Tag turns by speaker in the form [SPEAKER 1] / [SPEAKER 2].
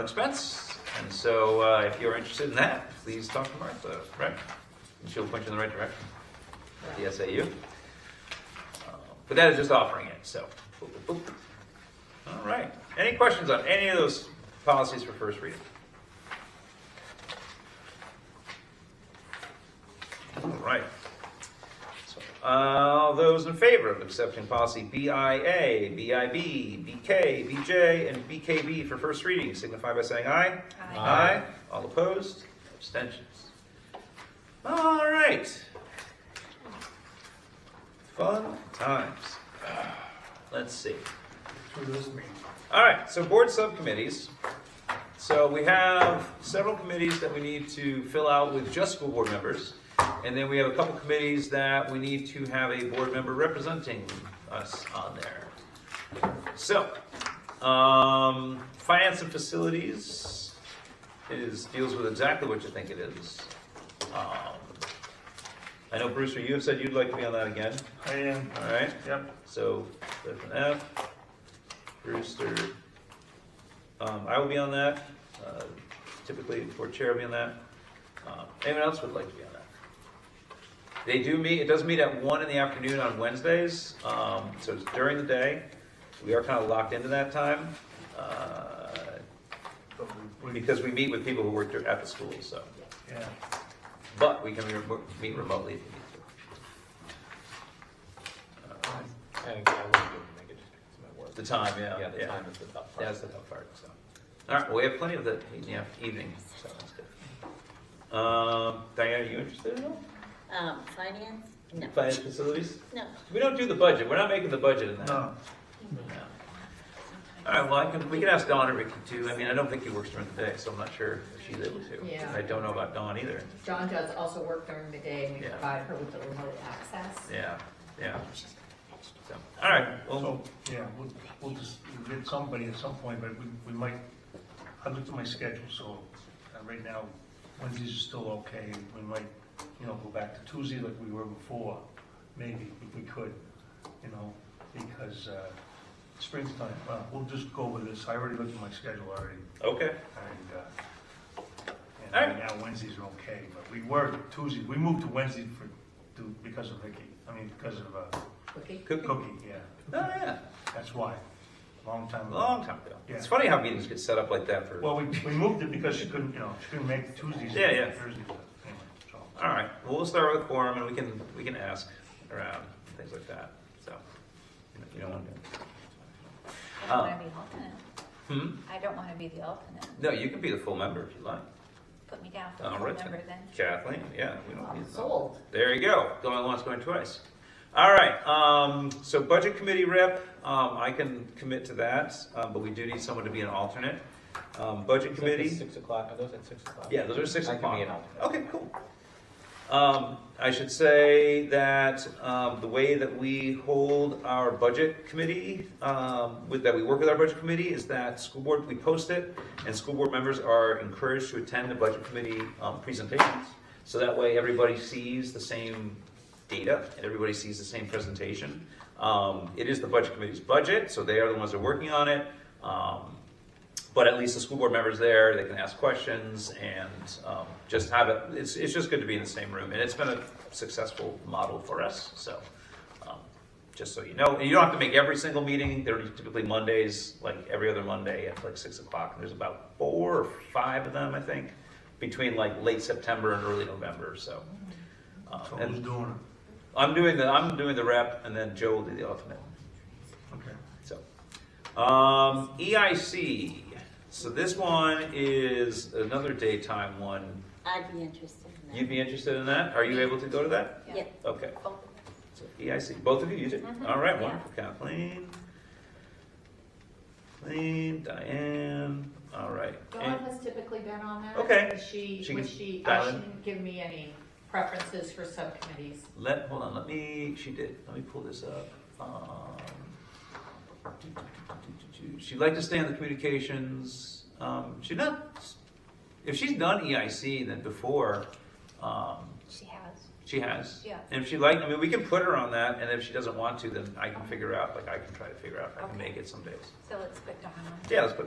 [SPEAKER 1] expense. And so uh, if you're interested in that, please talk to Martha, right? And she'll point you in the right direction at the SAU. Uh, But that is just offering it, so. boop, boop, boop. All right. Any questions on any of those policies for first reading? All right. So, Uh, All those in favor of accepting policy BIA, BIB, BK, BJ, and BKB for first reading signify by saying aye.
[SPEAKER 2] Aye.
[SPEAKER 1] All opposed? Abstentions? All right. Fun times. Let's see. All right, so board subcommittees. So we have several committees that we need to fill out with just school board members. And then we have a couple committees that we need to have a board member representing us on there. So, um, finance and facilities is, deals with exactly what you think it is. Um, I know Brewster, you have said you'd like to be on that again,
[SPEAKER 3] I am,
[SPEAKER 1] all right?
[SPEAKER 3] yep.
[SPEAKER 1] So, there's an F, Brewster. Um, I will be on that, uh, typically, or chair will be on that. Uh, Anyone else would like to be on that? They do meet, it does meet at one in the afternoon on Wednesdays, um, so it's during the day. We are kind of locked into that time, uh, because we meet with people who work at the school, so.
[SPEAKER 3] Yeah.
[SPEAKER 1] But we can re- meet remotely if we need to. Uh,
[SPEAKER 4] I think I wouldn't be able to make it just because of my work.
[SPEAKER 1] The time, yeah,
[SPEAKER 4] Yeah, the
[SPEAKER 1] yeah.
[SPEAKER 4] time is the tough part.
[SPEAKER 1] That's the tough part, so. All right, well, we have plenty of the e- yeah, evening, so that's good. Um, Diane, are you interested at all?
[SPEAKER 2] Um, finance? No,
[SPEAKER 1] Finance facilities?
[SPEAKER 2] no.
[SPEAKER 1] We don't do the budget, we're not making the budget in that.
[SPEAKER 3] No,
[SPEAKER 1] No. All right, well, I can, we can ask Dawn or Ricky too. I mean, I don't think he works during the day, so I'm not sure if she's able to.
[SPEAKER 5] Yeah.
[SPEAKER 1] I don't know about Dawn either.
[SPEAKER 5] John does also work during the day and we
[SPEAKER 1] Yeah.
[SPEAKER 5] provide her with the remote access.
[SPEAKER 1] Yeah, yeah. So, all right, well,
[SPEAKER 3] so, yeah, we'll, we'll just we'll get somebody at some point, but we, we might, I looked at my schedule, so uh, right now, Wednesdays are still okay. We might, you know, go back to Tuesday like we were before, maybe, if we could, you know, because uh, springtime, well, we'll just go with this. I already looked at my schedule already.
[SPEAKER 1] okay.
[SPEAKER 3] And, uh, and
[SPEAKER 1] All right.
[SPEAKER 3] right now Wednesdays are okay, but we were Tuesday, we moved to Wednesday for, to, because of Vicky, I mean, because of, uh,
[SPEAKER 5] Cookie?
[SPEAKER 1] Cookie?
[SPEAKER 3] Cookie, yeah,
[SPEAKER 1] Oh, yeah,
[SPEAKER 3] that's why, long time ago.
[SPEAKER 1] long time ago. It's funny how meetings get set up like that for.
[SPEAKER 3] Well, we, we moved it because she couldn't, you know, she couldn't make Tuesdays.
[SPEAKER 1] Yeah, yeah.
[SPEAKER 3] Thursdays, but anyway, so.
[SPEAKER 1] All right, well, we'll start with quorum, and we can, we can ask around, things like that, so. You don't want Oh.
[SPEAKER 6] I don't want to be the alternate.
[SPEAKER 1] to? Hmm?
[SPEAKER 6] I don't want to be the alternate.
[SPEAKER 1] No, you can be the full member if you like.
[SPEAKER 6] Put me down for
[SPEAKER 1] All
[SPEAKER 6] full
[SPEAKER 1] right,
[SPEAKER 6] member then.
[SPEAKER 1] Kathleen, yeah, we don't need that.
[SPEAKER 5] Sold.
[SPEAKER 1] There you go, going once, going twice. All right, um, so budget committee rep, um, I can commit to that, um, but we do need someone to be an alternate. Um, budget
[SPEAKER 4] Is that the
[SPEAKER 1] committee,
[SPEAKER 4] Six o'clock, are those at six o'clock?
[SPEAKER 1] yeah, those are six
[SPEAKER 4] I can
[SPEAKER 1] o'clock.
[SPEAKER 4] be an alternate.
[SPEAKER 1] Okay, cool. Um, I should say that, um, the way that we hold our budget committee, um, with, that we work with our budget committee is that school board, we post it, and school board members are encouraged to attend the budget committee, um, presentations. So that way, everybody sees the same data, and everybody sees the same presentation. Um, it is the budget committee's budget, so they are the ones that are working on it. Um, but at least the school board member's there, they can ask questions and um, just have it, it's, it's just good to be in the same room. And it's been a successful model for us, so, um, just so you know. And you don't have to make every single meeting, they're typically Mondays, like every other Monday at like six o'clock. And there's about four or five of them, I think, between like late September and early November, so. um,
[SPEAKER 3] So who's
[SPEAKER 1] And
[SPEAKER 3] doing it?
[SPEAKER 1] I'm doing the, I'm doing the rep and then Joe will do the alternate.
[SPEAKER 3] Okay.
[SPEAKER 1] So, um, EIC. So this one is another daytime one.
[SPEAKER 2] I'd be interested in that.
[SPEAKER 1] You'd be interested in that? Are you able to go to that?
[SPEAKER 2] Yeah.
[SPEAKER 1] Okay.
[SPEAKER 6] Both of us.
[SPEAKER 1] So EIC, both of you, you did.
[SPEAKER 6] Mhm.
[SPEAKER 1] All right,
[SPEAKER 6] Yeah.
[SPEAKER 1] wonderful. Kathleen. Kathleen, Diane. All right.
[SPEAKER 5] Dawn
[SPEAKER 1] And-
[SPEAKER 5] has typically been on that.
[SPEAKER 1] Okay.
[SPEAKER 5] She,
[SPEAKER 1] She
[SPEAKER 5] was
[SPEAKER 1] can
[SPEAKER 5] she,
[SPEAKER 1] dial
[SPEAKER 5] uh,
[SPEAKER 1] in.
[SPEAKER 5] she didn't give me any preferences for subcommittees.
[SPEAKER 1] Let, hold on, let me, she did, let me pull this up. Um, She'd like to stay on the communications, um, she's not, if she's done EIC then before, um,
[SPEAKER 6] She has.
[SPEAKER 1] she has.
[SPEAKER 6] Yeah.
[SPEAKER 1] And if she like, I mean, we can put her on that, and if she doesn't want to, then I can figure out, like, I can try to figure out, if I can
[SPEAKER 6] Okay.
[SPEAKER 1] make it some days.
[SPEAKER 6] So let's put Donna on.
[SPEAKER 1] Yeah, let's put